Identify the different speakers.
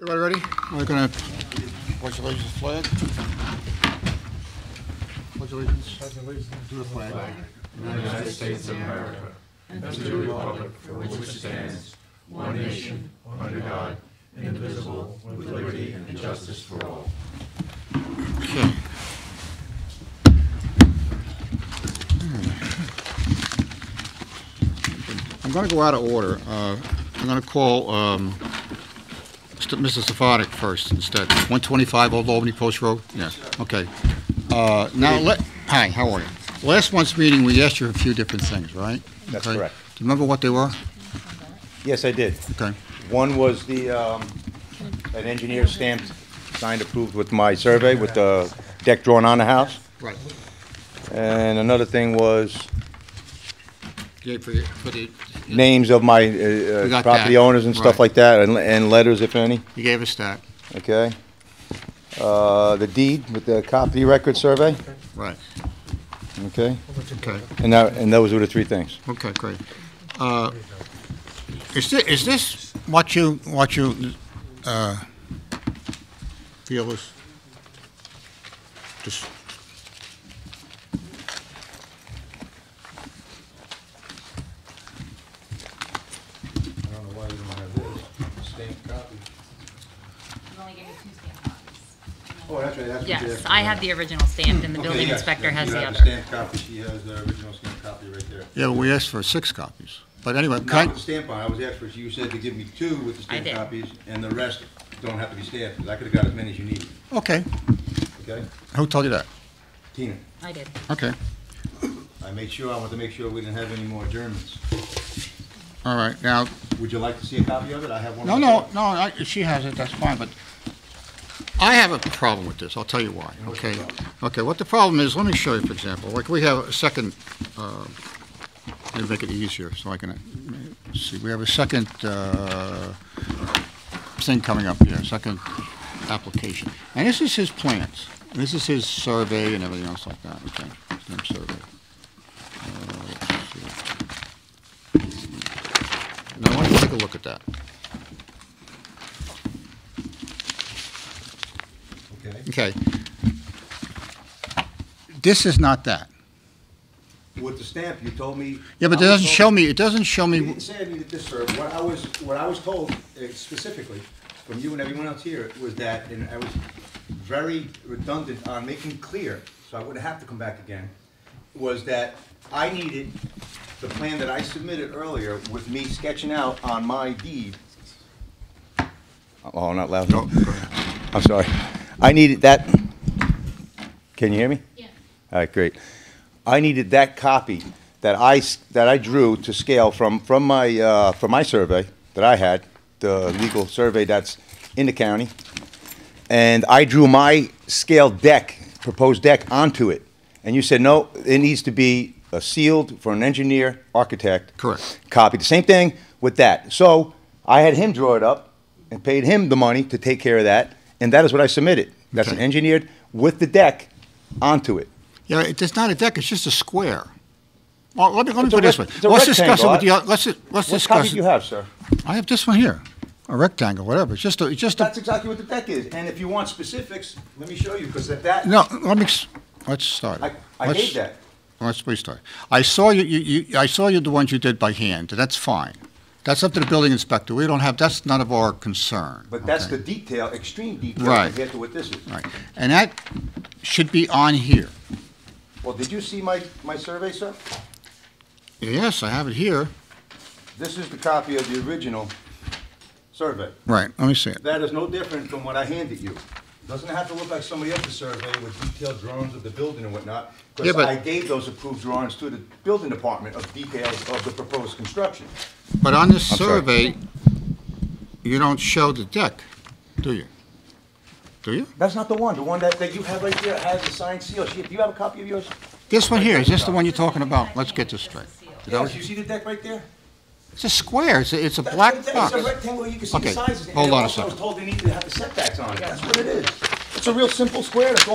Speaker 1: Everybody ready? We're going to pledge allegiance to the flag. Pledge allegiance to the flag. I'm going to go out of order. Uh, I'm going to call um, St- Mr. Safardik first instead. 125 Old Albany Post Road? Yeah, okay. Uh, Now, let, hi, how are you? Last month's meeting, we asked you a few different things, right?
Speaker 2: That's
Speaker 1: Okay.
Speaker 2: correct.
Speaker 1: Do you remember what they were?
Speaker 2: Yes, I did.
Speaker 1: Okay.
Speaker 2: One was the, um, an engineer stamped, signed, approved with my survey, with the deck drawn on the house.
Speaker 1: Right.
Speaker 2: And another thing was
Speaker 1: Yeah, for the, for the,
Speaker 2: names of my uh,
Speaker 1: We
Speaker 2: uh,
Speaker 1: got
Speaker 2: property
Speaker 1: that,
Speaker 2: owners and stuff
Speaker 1: right.
Speaker 2: like that, and- and letters, if any,
Speaker 1: you gave us that,
Speaker 2: okay? Uh, The deed with the copy record survey,
Speaker 1: right,
Speaker 2: okay?
Speaker 1: okay.
Speaker 2: And that, and those were the three things.
Speaker 1: Okay, great. Uh, Is this, is this what you, what you uh, feel is, just,
Speaker 3: I don't know why you don't have this stamped copy.
Speaker 4: You only gave me two stamp copies.
Speaker 3: Oh, that's right, that's what you
Speaker 4: Yes, I have the original stamped and the building inspector has the
Speaker 3: You
Speaker 4: other.
Speaker 3: have the stamped copy, she has the original stamped copy right there.
Speaker 1: yeah, but we asked for six copies. But anyway,
Speaker 3: Not
Speaker 1: can
Speaker 3: with the stamp on, it, I was asked for, you said to give me two with the
Speaker 4: I
Speaker 3: stamped
Speaker 4: did.
Speaker 3: copies, and the rest don't have to be stamped, 'cause I could've got as many as you needed,
Speaker 1: I- okay,
Speaker 3: okay?
Speaker 1: who told you that?
Speaker 3: Tina,
Speaker 4: I did.
Speaker 1: Okay,
Speaker 3: I made sure, I wanted to make sure we didn't have any more adjournments.
Speaker 1: all right, now,
Speaker 3: Would you like to see a copy of it? I have one.
Speaker 1: no, no,
Speaker 3: myself.
Speaker 1: no, I- she has it, that's fine, but I have a problem with this, I'll tell you why, okay? Okay, what the problem is, let me show you, for example, like, we have a second, uh, let me make it easier, so I can, uh, see, we have a second uh, thing coming up here, second application. And this is his plans, And this is his survey and everything else like that, okay? His name survey. Uh, let's see. Now, I want you to take a look at that.
Speaker 3: Okay,
Speaker 1: Okay. This is not that.
Speaker 3: with the stamp, you told me.
Speaker 1: Yeah, but it
Speaker 3: I was
Speaker 1: doesn't
Speaker 3: told-
Speaker 1: show me, it doesn't show
Speaker 3: You
Speaker 1: me,
Speaker 3: didn't say I needed this, sir. What I was, what I was told eh, specifically from you and everyone else here was that, and I was very redundant on making clear, so I wouldn't have to come back again, was that I needed the plan that I submitted earlier with me sketching out on my deed.
Speaker 2: Oh, not loud enough. I'm sorry. I needed that, can you hear me?
Speaker 4: Yeah.
Speaker 2: All right, great. I needed that copy that I, s- that I drew to scale from, from my, uh, from my survey that I had, the legal survey that's in the county. And I drew my scale deck, proposed deck onto it. And you said, no, it needs to be uh, sealed for an engineer, architect.
Speaker 1: Correct.
Speaker 2: Copy. The same thing with that. So I had him draw it up and paid him the money to take care of that. And that is what I submitted. That's an
Speaker 1: Okay.
Speaker 2: engineered with the deck onto it.
Speaker 1: yeah, it- it's not a deck, it's just a square. Well, let me, let me
Speaker 2: It's a
Speaker 1: put it this way.
Speaker 2: rec- it's a
Speaker 1: Let's discuss it with the,
Speaker 2: rectangle.
Speaker 1: oth- let's, let's
Speaker 2: What copy
Speaker 1: discuss
Speaker 2: do you
Speaker 1: it.
Speaker 2: have, sir?
Speaker 1: I have this one here, a rectangle, whatever, it's just a, it's just a,
Speaker 3: That's exactly what the deck is, and if you want specifics, let me show you, because at that,
Speaker 1: no, let me, s- let's start.
Speaker 3: I, I
Speaker 1: Let's-
Speaker 3: gave that.
Speaker 1: Let's restart. I saw you, you, you, I saw you, the ones you did by hand, and that's fine. That's up to the building inspector, we don't have, that's none of our concern.
Speaker 3: But that's
Speaker 1: okay?
Speaker 3: the detail, extreme detail
Speaker 1: Right.
Speaker 3: compared to what this is.
Speaker 1: Right, and that should be on here.
Speaker 3: Well, did you see my, my survey, sir?
Speaker 1: Yes, I have it here.
Speaker 3: This is the copy of the original survey.
Speaker 1: Right, let me see it.
Speaker 3: That is no different from what I handed you. Doesn't have to look like somebody else's survey with detailed drawings of the building and whatnot,
Speaker 1: Yeah,
Speaker 3: because
Speaker 1: but-
Speaker 3: I gave those approved drawings to the building department of details of the proposed construction.
Speaker 1: But on this
Speaker 2: I'm sorry.
Speaker 1: survey, you don't show the deck, do you? Do you?
Speaker 3: That's not the one, the one that, that you have right there has a signed seal. She- Do you have a copy of yours?
Speaker 1: This one here, is this the one you're talking about? Let's get this straight. Is that what
Speaker 3: Yes,
Speaker 1: you-
Speaker 3: you see the deck right there?
Speaker 1: It's a square, it's a, it's a
Speaker 3: That's
Speaker 1: black
Speaker 3: what it is.
Speaker 1: box.
Speaker 3: It's a rectangle, you can see the
Speaker 1: Okay,
Speaker 3: sizes. and
Speaker 1: hold on a
Speaker 3: also I was
Speaker 1: second.
Speaker 3: told they needed to have the setbacks on it, that's what it is. It's a real simple square, that's all